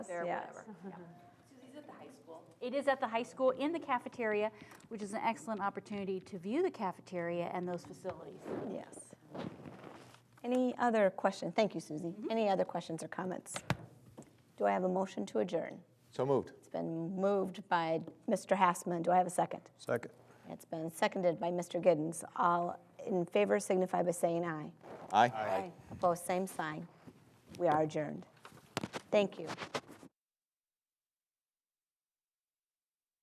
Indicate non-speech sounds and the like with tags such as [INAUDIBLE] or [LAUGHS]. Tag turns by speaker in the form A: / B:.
A: there,
B: yes.
A: whatever.
B: [LAUGHS] It is at the high school in the cafeteria, which is an excellent opportunity to view the cafeteria and those facilities.
A: Mm-hmm. Yes. Any other question? Thank you, Susie. Any other questions or comments? Do I have a motion to adjourn?
C: So moved.
A: It's been moved by Mr. Hassman. Do I have a second?
C: Second.
A: It's been seconded by Mr. Giddens. All in favor signify by saying aye.
C: Aye. Aye.
A: Opposed, same sign. We are adjourned. Thank you.